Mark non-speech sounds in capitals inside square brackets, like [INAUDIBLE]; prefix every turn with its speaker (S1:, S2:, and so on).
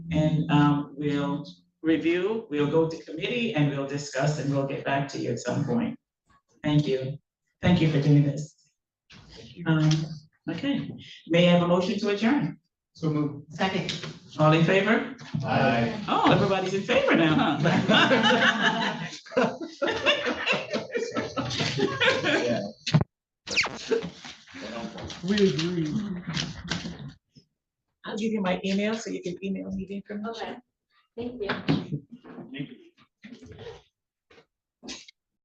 S1: and um, we'll review, we'll go to committee and we'll discuss and we'll get back to you at some point. Thank you. Thank you for doing this. Um, okay, may I have a motion to adjourn?
S2: So move.
S3: Second.
S1: All in favor?
S2: Aye.
S1: Oh, everybody's in favor now, huh? [LAUGHS]
S2: We agree.
S1: I'll give you my email so you can email me the information.
S4: Okay, thank you.